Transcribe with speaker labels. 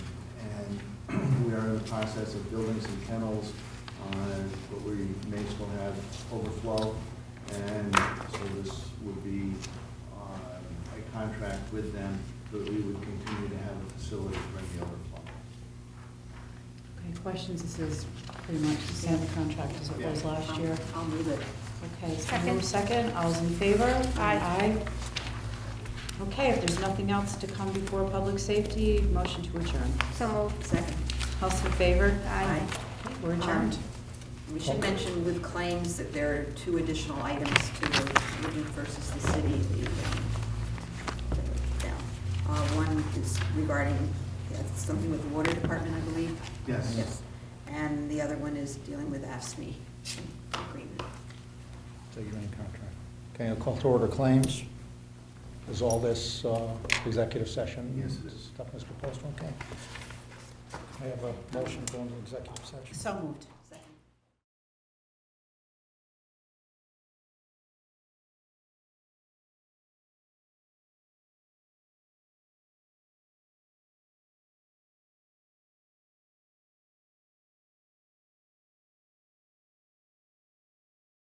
Speaker 1: the process of building some kennels, uh, but we may still have overflow. And so this would be uh, a contract with them, that we would continue to have a facility for the overflow.
Speaker 2: Okay, questions, this is pretty much the same contract as it was last year.
Speaker 3: I'll move it.
Speaker 2: Okay, so
Speaker 4: Second.
Speaker 2: move second, all's in favor?
Speaker 4: Aye.
Speaker 2: Okay, if there's nothing else to come before public safety, motion to adjourn.
Speaker 4: So moved.
Speaker 3: Second.
Speaker 2: All's in favor?
Speaker 4: Aye.
Speaker 2: Okay, We're adjourned.
Speaker 3: We should mention with claims that there are two additional items to the Woodard versus the city. the, um, the, yeah. Uh, One is regarding yeah, something with the water department, I believe.
Speaker 1: Yes.
Speaker 3: Yes. And the other one is dealing with AFSMI E agreement.
Speaker 5: So you're in contract. Okay, I'll call to order claims. Is all this uh, executive session?
Speaker 1: Yes, it is.
Speaker 5: Stuff, Mr. Postma, okay. I have a motion going to executive session.
Speaker 2: So moved.